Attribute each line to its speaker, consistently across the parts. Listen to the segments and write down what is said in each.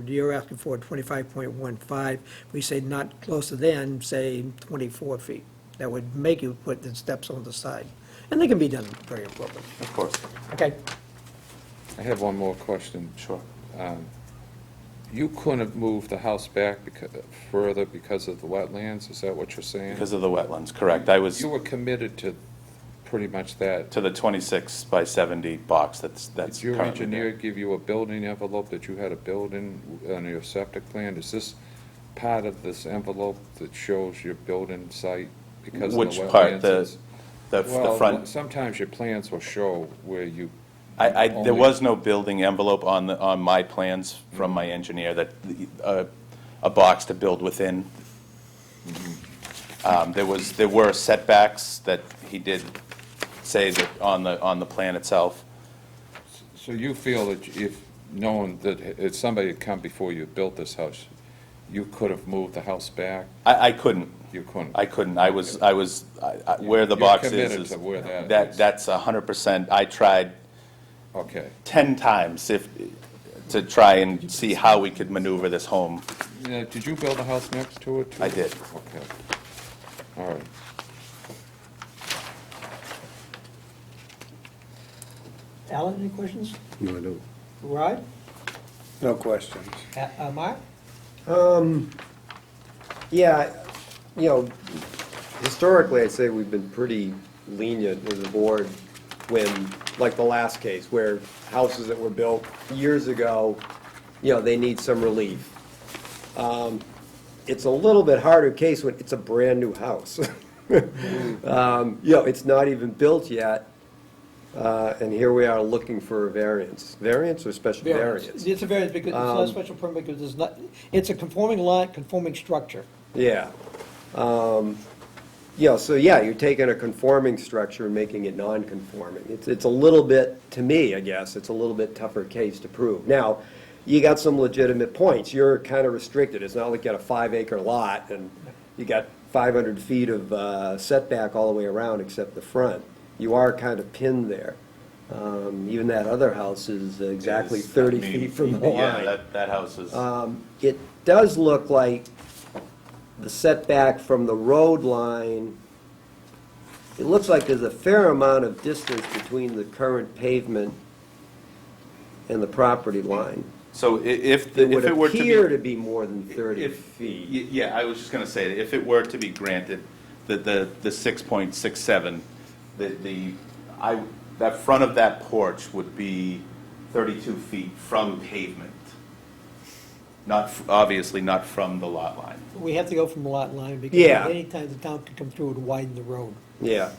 Speaker 1: You're asking for twenty-five point one five, we say not closer than, say, twenty-four feet. That would make you put the steps on the side, and they can be done very appropriately.
Speaker 2: Of course.
Speaker 1: Okay,
Speaker 3: I have one more question.
Speaker 2: Sure.
Speaker 3: Um, You couldn't have moved the house back becau- further because of the wetlands, is that what you're saying?
Speaker 2: Because of the wetlands, correct. I was
Speaker 3: You were committed to pretty much that.
Speaker 2: to the 26 by 70 box that's, that's
Speaker 3: Did your
Speaker 2: currently
Speaker 3: engineer
Speaker 2: there.
Speaker 3: give you a building envelope that you had a building on your septic plan? Is this part of this envelope that shows your building site because of the wetlands?
Speaker 2: Which part? The,
Speaker 3: It's-
Speaker 2: the f- the
Speaker 3: Well,
Speaker 2: front?
Speaker 3: Sometimes your plans will show where you,
Speaker 2: I, I,
Speaker 3: only-
Speaker 2: there was no building envelope on the, on my plans from my
Speaker 3: Mm-hmm.
Speaker 2: engineer that, uh, a box to build within.
Speaker 3: Mm-hmm.
Speaker 2: Um, There was, there were setbacks that he did say that on the, on the plan itself.
Speaker 3: so you feel that if, knowing that if somebody had come before you built this house, you could have moved the house back?
Speaker 2: I, I couldn't.
Speaker 3: You couldn't?
Speaker 2: I couldn't, I was, I was, I- I- where the
Speaker 3: You're
Speaker 2: box is.
Speaker 3: committed
Speaker 2: is-
Speaker 3: to where that is.
Speaker 2: That's a hundred percent, I tried
Speaker 3: Okay.
Speaker 2: ten times if, to try and see how we could maneuver this home.
Speaker 3: Now, Did you build a house next to it? too?
Speaker 2: I did.
Speaker 3: Okay. All right.
Speaker 1: Alan, any questions?
Speaker 4: No, I don't.
Speaker 1: Rod?
Speaker 4: No questions.
Speaker 1: Uh, uh, Mark?
Speaker 5: Yeah, you know, historically, I'd say we've been pretty lenient as a board when, like the last case, where houses that were built years ago, you know, they need some relief. Um, It's a little bit harder case when it's a brand-new house. Um, You know, it's not even built yet, uh, and here we are looking for a variance. Variance or special variance? Um,
Speaker 1: It's a variance, because it's not a special permit, because it's not, it's a conforming lot, conforming structure.
Speaker 5: Yeah. Um, Yeah, so yeah, you're taking a conforming structure and making it non-conforming. It's, it's a little bit, to me, I guess, it's a little bit tougher case to prove. Now, you got some legitimate points. You're kind of restricted. It's not like you got a five-acre lot and you got 500 feet of uh, setback all the way around except the front. You are kind of pinned there. Um, Even that other house is exactly
Speaker 2: Is- I
Speaker 5: 30
Speaker 2: mean,
Speaker 5: feet from the line.
Speaker 2: Yeah, that, that house is,
Speaker 5: Um, It does look like the setback from the road line, it looks like there's a fair amount of distance between the current pavement and the property line.
Speaker 2: so i- if, the-
Speaker 5: It
Speaker 2: if
Speaker 5: would
Speaker 2: it were to be.
Speaker 5: appear to be more than 30
Speaker 2: if-
Speaker 5: feet.
Speaker 2: y- Yeah, I was just gonna say, if it were to be granted, the, the, the six point six seven, the, the, I, that front of that porch would be thirty-two feet from pavement. Not, f- obviously not from the lot line.
Speaker 1: We have to go from the lot line, because
Speaker 5: Yeah.
Speaker 1: anytime the town can come through and widen the road.
Speaker 5: Yeah.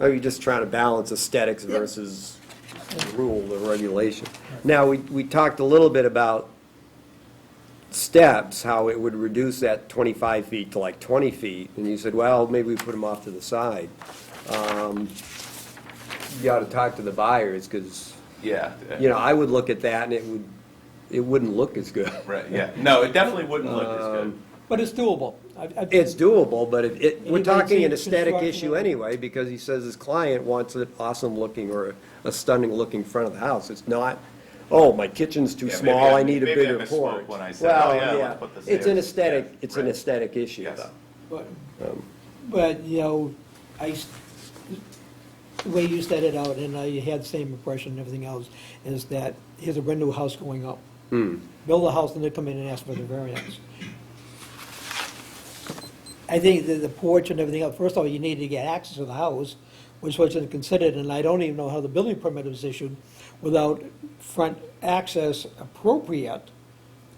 Speaker 5: Oh, you're just trying to balance aesthetics versus rule or regulation. Now, we, we talked a little bit about steps, how it would reduce that 25 feet to like 20 feet, and you said, well, maybe we put them off to the side. Um, You ought to talk to the buyers, because,
Speaker 2: Yeah.
Speaker 5: you know, I would look at that and it would, it wouldn't look as good.
Speaker 2: Right, yeah, no, it definitely wouldn't look as good.
Speaker 1: But it's doable. I- I-
Speaker 5: It's doable, but it- it, we're
Speaker 1: Anybody
Speaker 5: talking
Speaker 1: seen
Speaker 5: an aesthetic
Speaker 1: construction
Speaker 5: issue
Speaker 1: of-
Speaker 5: anyway, because he says his client wants an awesome-looking or a stunning-looking front of the house. It's not, oh, my kitchen's too
Speaker 2: Yeah, maybe
Speaker 5: small,
Speaker 2: I-
Speaker 5: I need a
Speaker 2: maybe I
Speaker 5: bigger
Speaker 2: misspoke
Speaker 5: porch.
Speaker 2: when I said,
Speaker 5: Well,
Speaker 2: oh, yeah, let's put this
Speaker 5: It's
Speaker 2: there.
Speaker 5: an aesthetic,
Speaker 2: Yeah,
Speaker 5: it's an
Speaker 2: right.
Speaker 5: aesthetic issue,
Speaker 2: Yes.
Speaker 5: though.
Speaker 1: But, but, you know, I, s- the way you said it out, and I had the same impression and everything else, is that here's a brand new house going up. Build a house and then come in and ask for the variance. I think that the porch and everything else, first of all, you need to get access to the house, which wasn't considered, and I don't even know how the building permit was issued without front access appropriate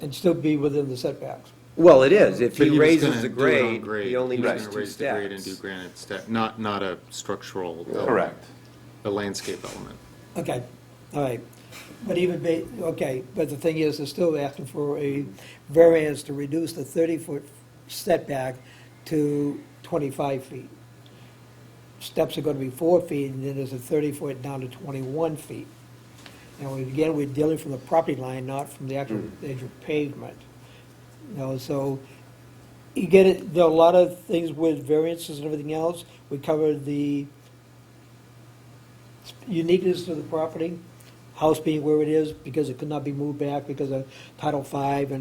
Speaker 1: and still be within the setbacks.
Speaker 5: Well, it is, if he raises
Speaker 6: gonna
Speaker 5: the
Speaker 6: do it on
Speaker 5: grade, he only
Speaker 6: He was
Speaker 5: needs
Speaker 6: gonna
Speaker 5: two
Speaker 6: raise the grade and do
Speaker 5: steps.
Speaker 6: granite step, not, not a structural. element,
Speaker 2: Correct.
Speaker 6: A landscape element.
Speaker 1: Okay, all right. But even, ba- okay, but the thing is, they're still asking for a variance to reduce the 30-foot setback to 25 feet. Steps are going to be four feet, and then there's a 30-foot down to 21 feet. Now, again, we're dealing from the property line, not from the actual edge of pavement. You know, so you get it, there are a lot of things with variances and everything else. We covered the uniqueness of the property, house being where it is, because it could not be moved back because of Title V and